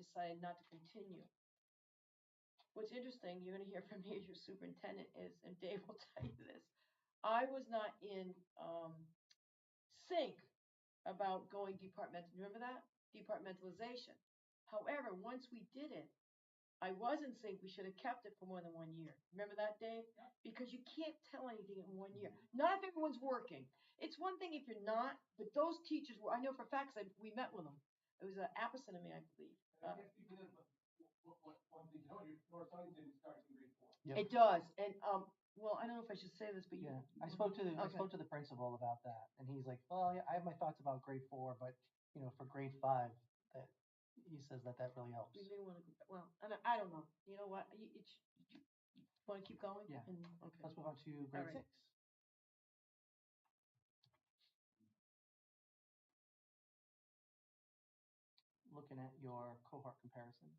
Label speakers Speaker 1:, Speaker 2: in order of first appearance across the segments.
Speaker 1: decided not to continue. What's interesting, you're gonna hear from me as your superintendent is, and Dave will tell you this, I was not in, um, sync about going departmental, remember that? Departmentalization. However, once we did it, I was in sync, we should have kept it for more than one year. Remember that, Dave? Because you can't tell anything in one year. Not if everyone's working. It's one thing if you're not, but those teachers were, I know for facts, I, we met with them. It was uh, Appison and me, I believe.
Speaker 2: I
Speaker 1: Uh,
Speaker 2: guess even if, what, what, one thing, you know, your North Science didn't start in grade four.
Speaker 3: Yeah.
Speaker 1: It does, and, um, well, I don't know if I should say this, but you.
Speaker 3: Yeah, I spoke to the, I
Speaker 1: Okay.
Speaker 3: spoke to the principal about that, and he's like, well, yeah, I have my thoughts about grade four, but, you know, for grade five, that, he says that that really helps.
Speaker 1: We may wanna, go back- well, I don't, I don't know. You know what? You, it's, you wanna keep going?
Speaker 3: Yeah.
Speaker 1: And, okay.
Speaker 3: Let's move on to grade
Speaker 1: Alright.
Speaker 3: six. Looking at your cohort comparison.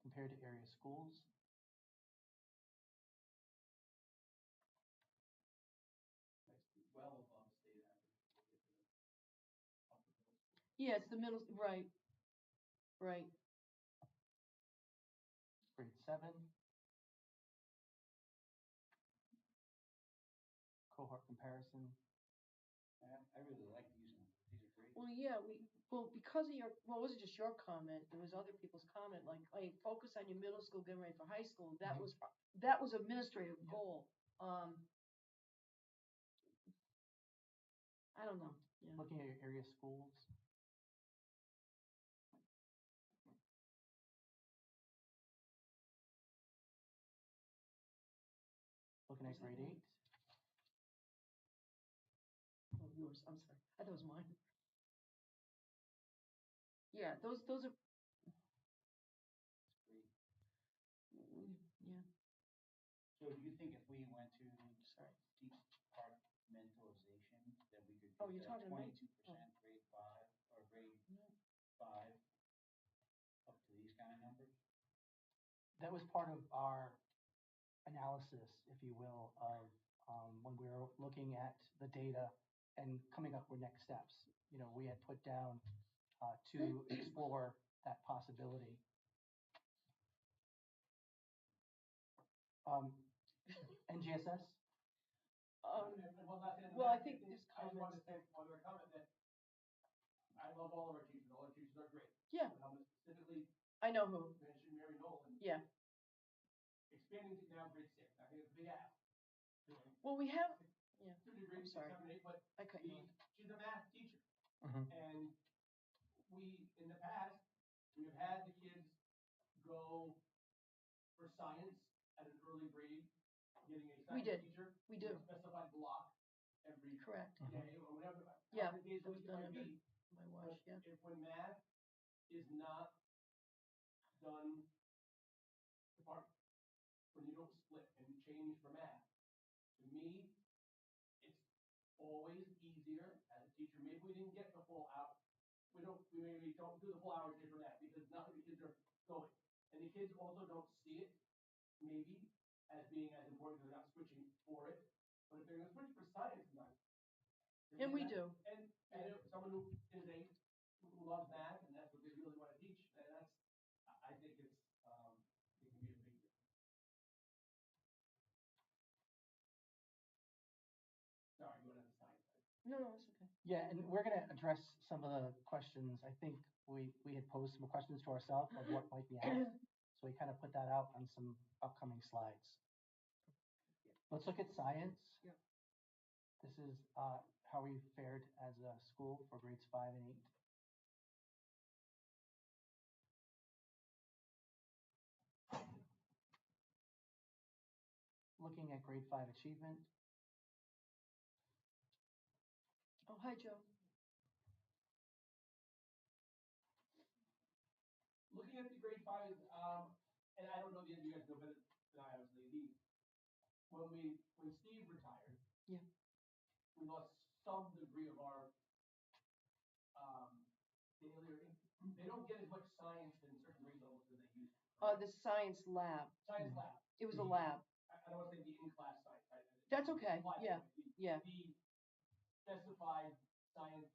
Speaker 3: Compared to area schools.
Speaker 2: That's well above state average.
Speaker 1: Yeah, it's the middle, right, right.
Speaker 3: grade seven. Cohort comparison,
Speaker 2: I, I really like these ones, these are great.
Speaker 1: Well, yeah, we, well, because of your, well, it wasn't just your comment, there was other people's comment, like, hey, focus on your middle school, getting ready for high school, that
Speaker 3: Mhm.
Speaker 1: was, that was administrative
Speaker 3: Yeah.
Speaker 1: goal, um. I don't know, yeah,
Speaker 3: looking at your area schools. Looking at
Speaker 1: Who's that
Speaker 3: grade
Speaker 1: one?
Speaker 3: eight,
Speaker 1: oh, yours, I'm sorry, I thought it was mine. Yeah, those, those are,
Speaker 2: Great.
Speaker 1: mm, yeah,
Speaker 2: So do you think if we went to
Speaker 1: sorry,
Speaker 2: departmentalization, that we could
Speaker 1: Oh, you're
Speaker 2: get that
Speaker 1: talking to me? Mm-hmm.
Speaker 2: twenty-two percent grade five, or grade five, up to these kind of numbers?
Speaker 3: that was part of our analysis, if you will, of, um, when we were looking at the data and coming up with next steps. You know, we had put down, uh, to explore that possibility. Um, NGSS,
Speaker 1: um,
Speaker 2: Well, not that-
Speaker 1: well, I think there's
Speaker 2: I just wanted to
Speaker 1: comments.
Speaker 2: say, one other comment that I love all of our teachers, all our teachers are great.
Speaker 1: Yeah.
Speaker 2: But I'm gonna specifically
Speaker 1: I know who,
Speaker 2: mention Mary Nolan.
Speaker 1: Yeah.
Speaker 2: Expanding to now grade six, I think it's a big ask. You know,
Speaker 1: well, we have,
Speaker 2: Through to grade six,
Speaker 1: sorry.
Speaker 2: seven, eight, but
Speaker 1: I cut you
Speaker 2: she,
Speaker 1: off.
Speaker 2: she's a math teacher.
Speaker 3: Mhm.
Speaker 2: And we, in the past, we have had the kids go for science at an early grade, getting a
Speaker 1: We did.
Speaker 2: science teacher.
Speaker 1: we do,
Speaker 2: with a Specified block every
Speaker 1: correct,
Speaker 2: day or whatever. how
Speaker 1: Yeah,
Speaker 2: many days
Speaker 1: that
Speaker 2: a
Speaker 1: was
Speaker 2: week it
Speaker 1: done
Speaker 2: might
Speaker 1: under-
Speaker 2: be.
Speaker 1: my watch, yeah.
Speaker 2: But If when math is not done department, when you don't split and change for math, to me, it's always easier as a teacher, maybe we didn't get the full hour. We don't, we maybe don't do the full hour day for math because not the kids are going. And the kids also don't see it, maybe, as being as important, they're not switching for it. But if they're gonna switch for science, not.
Speaker 1: And we do,
Speaker 2: And, and if someone who is a, who loves math and that's what they really wanna teach, then that's, I, I think it's, um, it can be a big. Sorry, you wanna sign?
Speaker 1: no, no, it's okay,
Speaker 3: Yeah, and we're gonna address some of the questions. I think we, we had posed some questions to ourselves of what might be asked. So we kind of put that out on some upcoming slides. Let's look at science.
Speaker 1: Yep.
Speaker 3: This is, uh, how we fared as a school for grades five and eight. Looking at grade five achievement,
Speaker 1: oh, hi, Joe.
Speaker 2: looking at the grade five, um, and I don't know the end, you guys know better than I obviously, the, when we, when Steve retired.
Speaker 1: Yeah.
Speaker 2: We lost some degree of our, um, daily, they don't get as much science in certain grade levels as they used. to.
Speaker 1: Uh, the science lab.
Speaker 2: Science lab,
Speaker 1: It was a lab.
Speaker 2: I, I don't wanna say the in-class science. I- I-
Speaker 1: That's okay,
Speaker 2: applied
Speaker 1: yeah,
Speaker 2: science, the-
Speaker 1: yeah.
Speaker 2: The specified science